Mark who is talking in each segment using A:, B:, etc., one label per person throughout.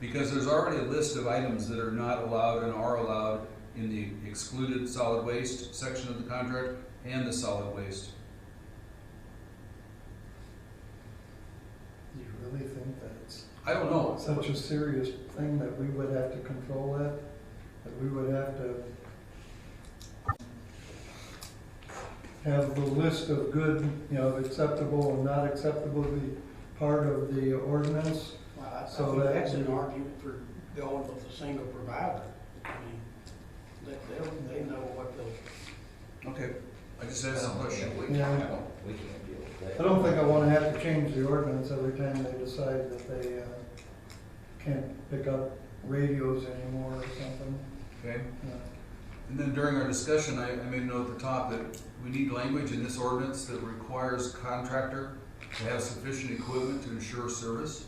A: Because there's already a list of items that are not allowed and are allowed in the excluded solid waste section of the contract and the solid waste.
B: You really think that it's
A: I don't know,
B: such a serious thing that we would have to control that? That we would have to have the list of good, you know, acceptable and not acceptable be part of the ordinance?
C: Well, I- I
B: So
C: think
B: that-
C: that's an argument for going with a single provider. I mean, they, they'll, they know what those,
A: okay, I just asked a question.
D: We
B: Yeah.
D: can't, we can't deal with that.
B: I don't think I wanna have to change the ordinance every time they decide that they, uh, can't pick up radios anymore or something.
A: Okay,
B: Uh,
A: and then during our discussion, I, I made a note at the top that we need language in this ordinance that requires contractor to have sufficient equipment to ensure service.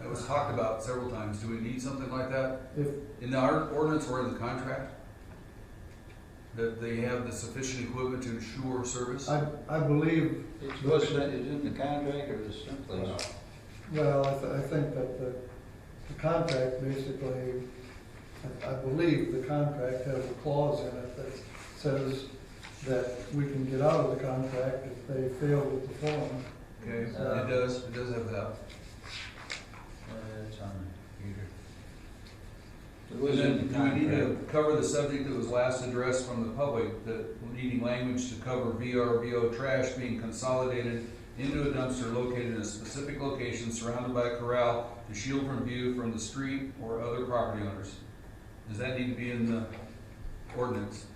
A: That was talked about several times, do we need something like that
B: If,
A: in our ordinance or in the contract? That they have the sufficient equipment to ensure service?
B: I, I believe
D: It's what's, that is in the contract or is someplace?
B: Well, I, th- I think that the, the contract basically, I, I believe the contract has a clause in it that says that we can get out of the contract if they fail to perform.
A: Okay, it does, it does have that.
D: It's on the computer. It
A: And
D: was in
A: then
D: the
A: do we need
D: contract.
A: to cover the subject that was last addressed from the public, that needing language to cover VRBO trash being consolidated into a dumpster located in a specific location surrounded by a corral to shield from view from the street or other property owners? Does that need to be in the ordinance?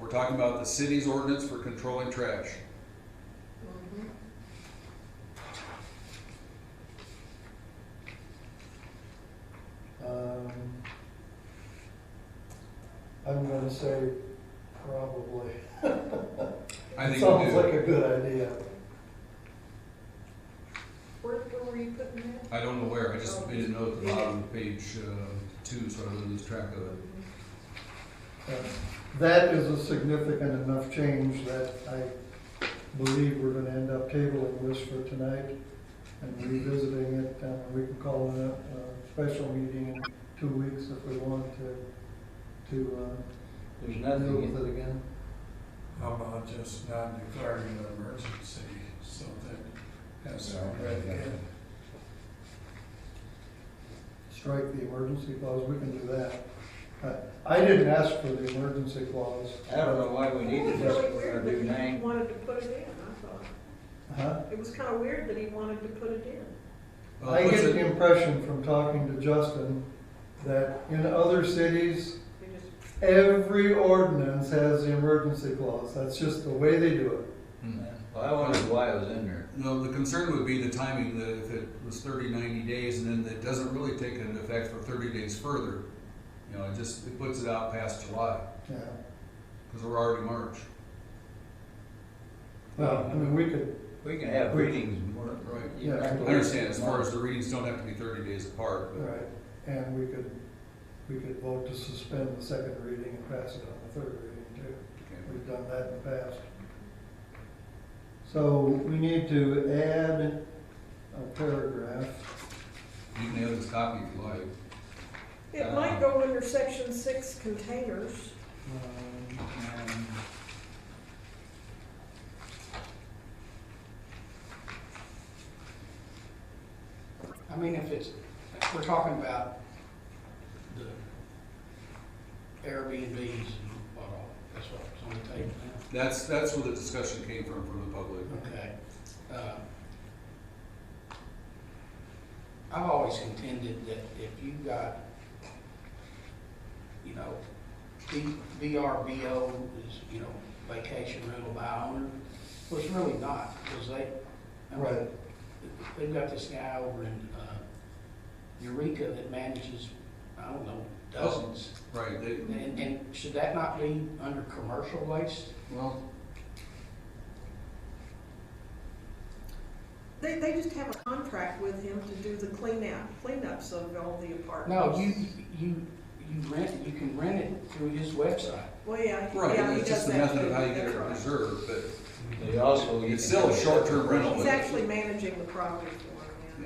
A: We're talking about the city's ordinance for controlling trash.
E: Mm-hmm.
B: Um, I'm gonna say probably.
A: I think we
B: Sounds like
A: do.
B: a good idea.
E: Where, where were you putting that?
A: I don't know where, I just made a note at the bottom of page, uh, two, so I didn't lose track of it.
B: Uh, That is a significant enough change that I believe we're gonna end up tabling this for tonight and revisiting it, and we can call a, a special meeting in two weeks if we want to, to,
D: There's
B: uh, deal
D: nothing,
B: with it again.
F: How about just not declaring an emergency, so that has some
D: Yeah.
F: red in.
B: Strike the emergency clause, we can do that. Uh, I didn't ask for the emergency clause.
D: I don't know why we need to
E: It was
D: just
E: really weird
D: do
E: that he
D: nine.
E: wanted to put it in, I thought.
B: Huh?
E: It was kind of weird that he wanted to put it in.
A: Well,
B: I
A: Uh, what's
B: get
A: it-
B: the impression from talking to Justin that in other cities,
E: They just-
B: Every ordinance has the emergency clause, that's just the way they do
A: Hmm.
D: Well, I wondered why it was in there.
A: No, the concern would be the timing, that if it was 30, 90 days, and then it doesn't really take into effect for thirty days further, you know, it just, it puts it out past July,
B: it, yeah.
A: because we're already March.
B: Well, I mean, we could,
D: We can have readings more.
A: Right.
D: you don't
B: Yeah.
D: have
A: I
D: to-
A: understand, as far as the readings don't have to be thirty days apart, but,
B: right, and we could, we could vote to suspend the second reading and pass it on the third reading too.
A: okay.
B: We've done that in the past. So we need to add a paragraph.
A: you can have this copy if you like. Uh,
E: It might go under section six containers.
B: um,
D: Um,
C: I mean, if it's, if we're talking about the Airbnbs and what all, that's what's on the table now.
A: That's, that's where the discussion came from, from the public.
C: Okay. Uh, I've always contended that if you got, you know, V- VRBO is, you know, vacation rental by owner, well, it's really not, because they, I mean,
B: Right.
C: they've got this guy over in uh, Eureka that manages, I don't know, dozens.
A: Right, they,
C: And, and should that not be under commercial waste?
A: well,
E: They, they just have a contract with him to do the cleanout, cleanups of all the
C: No,
E: apartments.
C: you, you, you rent, you can rent it through his website.
E: Well, yeah, he-
A: right,
E: yeah, he
A: it's just
E: does
A: the
E: that
A: method of
E: too.
A: how you get
E: That's
A: it
E: right.
A: reserved, but
D: They also. you
A: it's
D: can
A: still a
D: have-
A: short-term rental.
E: He's
A: but-
E: actually managing the property. for